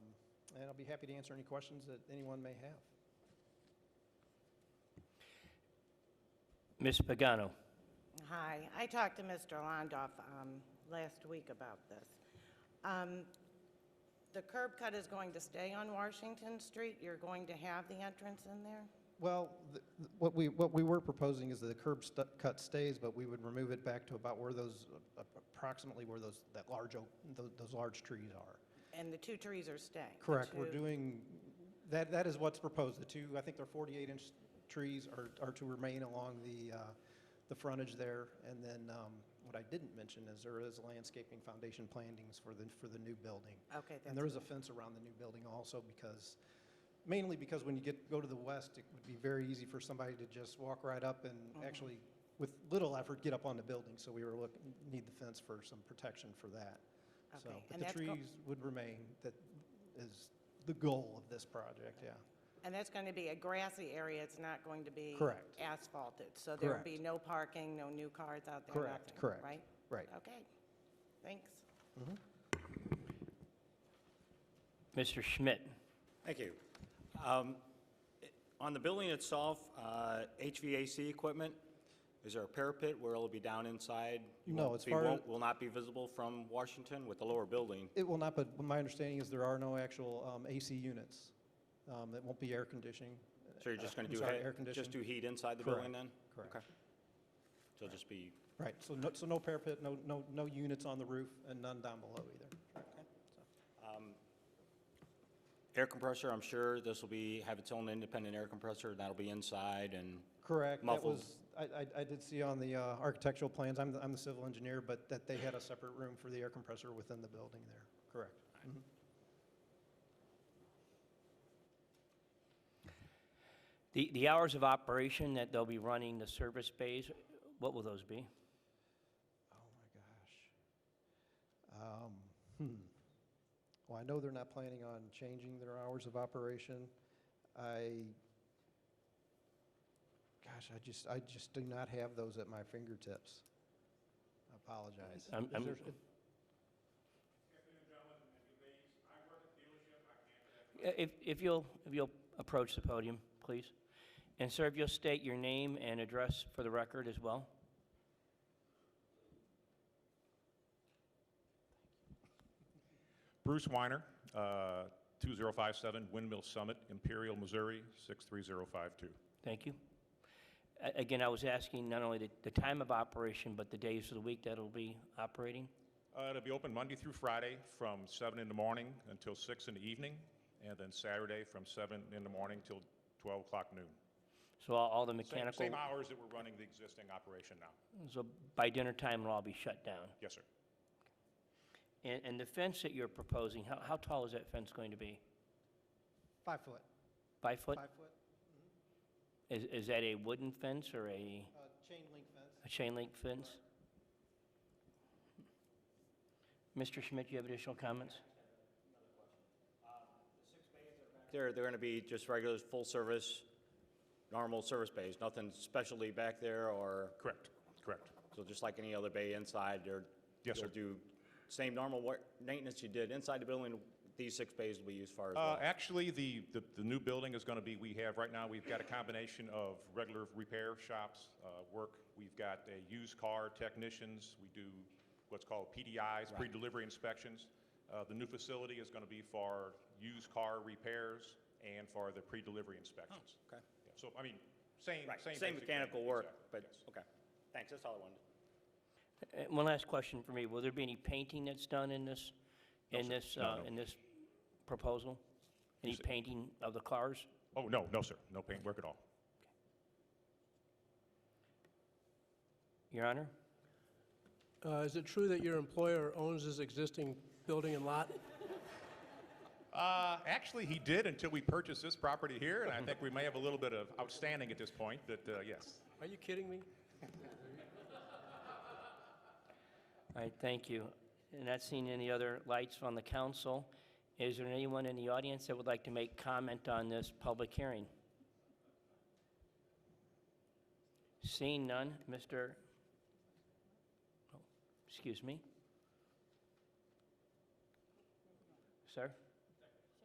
and I'll be happy to answer any questions that anyone may have. Ms. Pagano? Hi, I talked to Mr. Londoff um, last week about this. Um, The curb cut is going to stay on Washington Street? You're going to have the entrance in there? Well, th- th- what we, what we were proposing is that the curb stu- cut stays, but we would remove it back to about where those, uh, approximately where those, that large, oak- tho- those large trees are. And the two trees are staying? the Correct, we're two- doing, that, that is what's proposed. The two, I think they're 48-inch trees are, are to remain along the, uh, the frontage there. And then um, what I didn't mention is there is landscaping foundation plantings for the, for the new building. Okay, And there is a fence around the new building also because, mainly because when you get, go to the west, it would be very easy for somebody to just walk right up Mm-hmm. and actually, with little effort, get up on the building. So we were looking, need the fence for some protection for that. So, Okay, but and the that's go- trees would remain, that is the goal of this project, yeah. And that's going to be a grassy area, it's not going to be... Correct. Asphalted? So there will Correct. be no parking, no new cars out there, Correct, nothing, correct, right? right. Okay, thanks. Mr. Schmidt? Thank you. Um, i- On the building itself, uh, HVAC equipment, is there a parapet where it'll be down inside? No, Won't as be- far won't- as- Will not be visible from Washington with the lower building? It will not, but my understanding is there are no actual um, AC units. Um, It won't be air conditioning. So you're just Uh, going I'm to do, sorry, he- air just do conditioning? heat inside the Correct, building then? correct. Okay. So it'll just be, Right, so no, so no parapet, no, no, no units on the roof, and none down below either. So, air compressor, I'm sure this will be, have its own independent air compressor, and that'll be inside and, Correct. That Muffled. was, I, I I did see on the uh, architectural plans, I'm, the- I'm the civil engineer, but that they had a separate room for the air compressor within the building there. Correct. Mhm. The the hours of operation that they'll be running the service bays, what will those be? Oh, my gosh. Um, hmm. Well, I know they're not planning on changing their hours of operation. I, gosh, I just, I just do not have those at my fingertips. I apologize. I'm- Is I'm- there- Afternoon, gentlemen, and ladies. I work at the dealership. I If can't. if you'll, if you'll approach the podium, please. And sir, if you'll state your name and address for the record as well. Bruce Weiner, uh, 2057 Windmill Summit, Imperial, Missouri, 63052. Thank you. A- Again, I was asking not only the- the time of operation, but the days of the week that it'll be operating? Uh, It'll be open Monday through Friday from 7 in the morning until 6 in the evening, and then Saturday from 7 in the morning till 12 o'clock noon. So all all the Same- Same mechanical, hours that we're running the existing operation now. so by dinner time, it'll all be shut down? Yes, sir. And and the fence that you're proposing, how how tall is that fence going to be? Five foot, Five foot? five foot, Is is that a wooden fence or a uh, chain link fence. a chain link fence? Mr. Schmidt, you have additional comments? they're, they're going to be just regular, full service, normal service bays, nothing specialty back there or? Correct, correct. So just like any other bay inside, they're, Yes, sir. you'll do same normal work, maintenance you did inside the building, these six bays will be used for as Uh, well. Actually, the, the- the new building is going to be, we have, right now, we've got a combination of regular repair shops, uh, work. We've got a used car technicians. We do what's called PDIs, pre-delivery inspections. Uh, The new facility is going to be for used car repairs and for the pre-delivery inspections. Oh, okay. Yeah, So, I mean, same, Right, same. same basic mechanical thing, work, exactly, but, yes. okay. Thanks, that's all I wanted. Uh, One last question for me. Will there be any painting that's done in this, in this, No, uh, no. in this proposal? Any sir. painting of the cars? Oh, no, no, sir. No paint work at all. Your Honor? Uh, Is it true that your employer owns this existing building and lot? Uh, Actually, he did until we purchased this property here, and I think we may have a little bit of outstanding at this point, but uh, yes. Are you kidding me? All right, thank you. And not seeing any other lights on the council. Is there anyone in the audience that would like to make comment on this public hearing? Seeing none, Mr., oh, excuse me? Sir?